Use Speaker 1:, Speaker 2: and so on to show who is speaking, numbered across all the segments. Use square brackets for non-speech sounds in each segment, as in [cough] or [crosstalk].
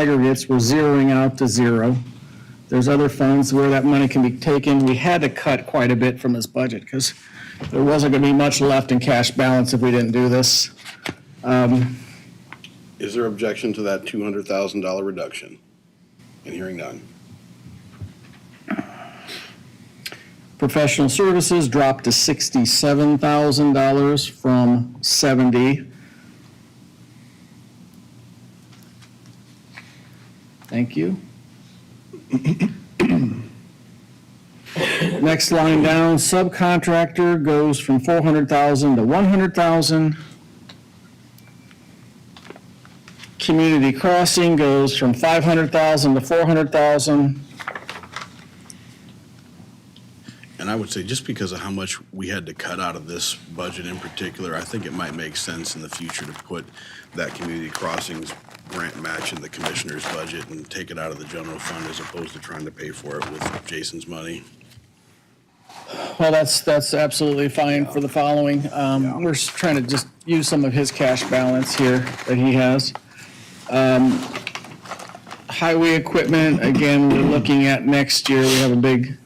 Speaker 1: aggregates, we're zeroing out to zero. There's other funds where that money can be taken. We had to cut quite a bit from this budget because there wasn't going to be much left in cash balance if we didn't do this.
Speaker 2: Is there objection to that two hundred thousand dollar reduction? And hearing none.
Speaker 1: Professional services dropped to sixty-seven thousand dollars from seventy. Thank you. [coughs] Next line down, subcontractor goes from four hundred thousand to one hundred thousand. Community crossing goes from five hundred thousand to four hundred thousand.
Speaker 2: And I would say, just because of how much we had to cut out of this budget in particular, I think it might make sense in the future to put that community crossings grant match in the commissioner's budget and take it out of the general fund as opposed to trying to pay for it with Jason's money.
Speaker 1: Well, that's, that's absolutely fine for the following. Um, we're s- trying to just use some of his cash balance here that he has. Um, Highway equipment, again, we're looking at next year, we have a big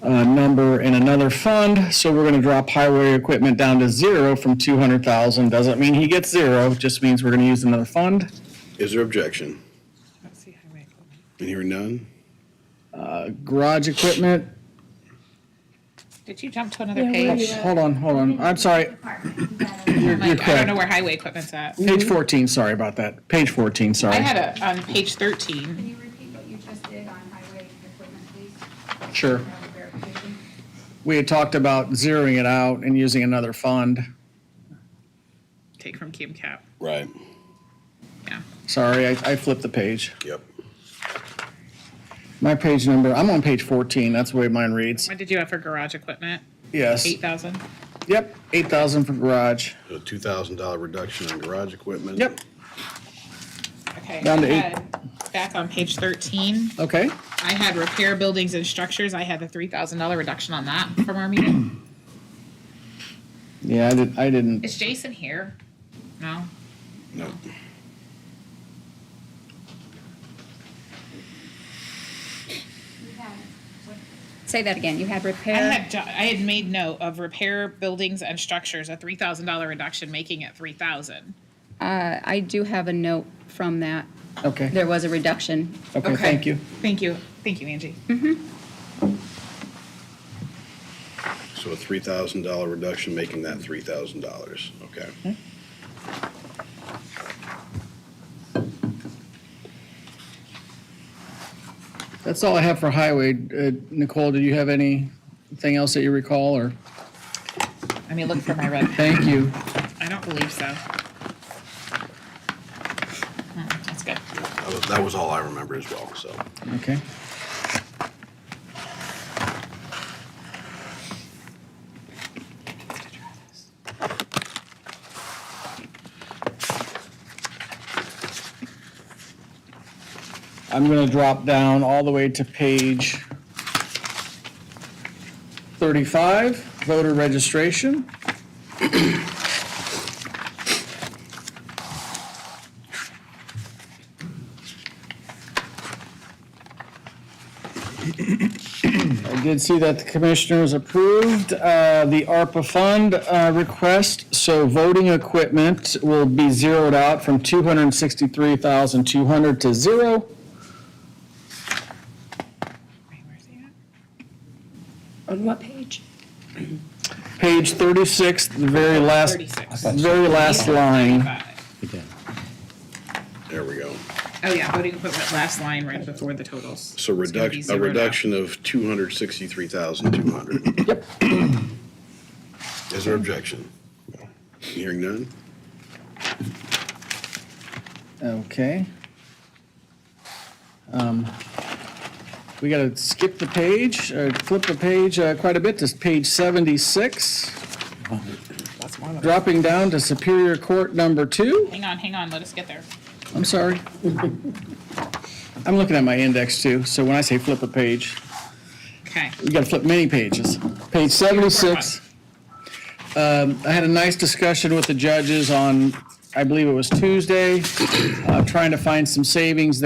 Speaker 1: uh, number in another fund, so we're gonna drop highway equipment down to zero from two hundred thousand. Doesn't mean he gets zero, just means we're gonna use another fund.
Speaker 2: Is there objection? And hearing none?
Speaker 1: Garage equipment,
Speaker 3: Did you jump to another page?
Speaker 1: hold on, hold on, I'm sorry, you're you're
Speaker 3: Like, I don't
Speaker 1: correct.
Speaker 3: know where highway equipment's at.
Speaker 1: Page fourteen, sorry about that, page fourteen, sorry.
Speaker 3: I had a, on page thirteen,
Speaker 4: Can you repeat what you just did on highway equipment, please?
Speaker 1: Sure.
Speaker 4: Uh, verification.
Speaker 1: We had talked about zeroing it out and using another fund.
Speaker 3: take from Kim Cap,
Speaker 2: Right.
Speaker 3: yeah.
Speaker 1: Sorry, I I flipped the page.
Speaker 2: Yep.
Speaker 1: My page number, I'm on page 14, that's the way mine reads.
Speaker 3: What did you have for garage equipment?
Speaker 1: Yes.
Speaker 3: Eight thousand?
Speaker 1: Yep, 8,000 for garage.
Speaker 2: A two thousand dollar reduction on garage equipment.
Speaker 1: Yep,
Speaker 3: Okay.
Speaker 1: Down to
Speaker 3: I
Speaker 1: eight.
Speaker 3: had- Back on page thirteen,
Speaker 1: okay.
Speaker 3: I had repair buildings and structures, I had the three thousand dollar reduction on that from our meeting.
Speaker 1: [clears throat] Yeah, I didn't, I didn't,
Speaker 3: Is Jason here? No?
Speaker 2: No.
Speaker 4: You had- what- Say that again, you had
Speaker 3: I
Speaker 4: repair,
Speaker 3: had, ju- I had made note of repair buildings and structures, a three thousand dollar reduction, making it three thousand.
Speaker 4: uh, I do have a note from that,
Speaker 1: okay,
Speaker 4: there was a reduction.
Speaker 1: okay, thank you.
Speaker 3: Thank you, thank you, Angie.
Speaker 2: So a three thousand dollar reduction, making that three thousand dollars, okay?
Speaker 1: That's all I have for highway. Uh, Nicole, do you have anything else that you recall, or?
Speaker 3: Let me look for my red pen.
Speaker 1: Thank you.
Speaker 3: I don't believe so. Hmm, That's good.
Speaker 2: That was, that was all I remember as well, so.
Speaker 1: Okay. I'm gonna drop down all the way to page thirty-five, voter registration. I did see that the commissioners approved uh, the ARPA fund uh, request, so voting equipment will be zeroed out from 263,200 to zero.
Speaker 3: Wait, where's he at?
Speaker 5: On what page?
Speaker 1: Page 36, the very last,
Speaker 3: Thirty-six.
Speaker 1: very last line.
Speaker 3: Five.
Speaker 2: There we go.
Speaker 3: Oh, yeah, voting equipment, last line right before the totals.
Speaker 2: So
Speaker 3: It's gonna be
Speaker 2: reduction, a
Speaker 3: zeroed out.
Speaker 2: reduction of two hundred sixty-three thousand two hundred.
Speaker 1: Yep.
Speaker 2: Is there objection? Hearing none?
Speaker 1: Okay. Um, We got to skip the page, uh, flip the page uh, quite a bit to page 76. Dropping down to Superior Court Number Two.
Speaker 3: Hang on, hang on, let us get there.
Speaker 1: I'm sorry. I'm looking at my index too, so when I say flip a page,
Speaker 3: Okay,
Speaker 1: we gotta flip many pages. Page seventy-six. Um, I had a nice discussion with the judges on I believe it was Tuesday, uh, trying to find some savings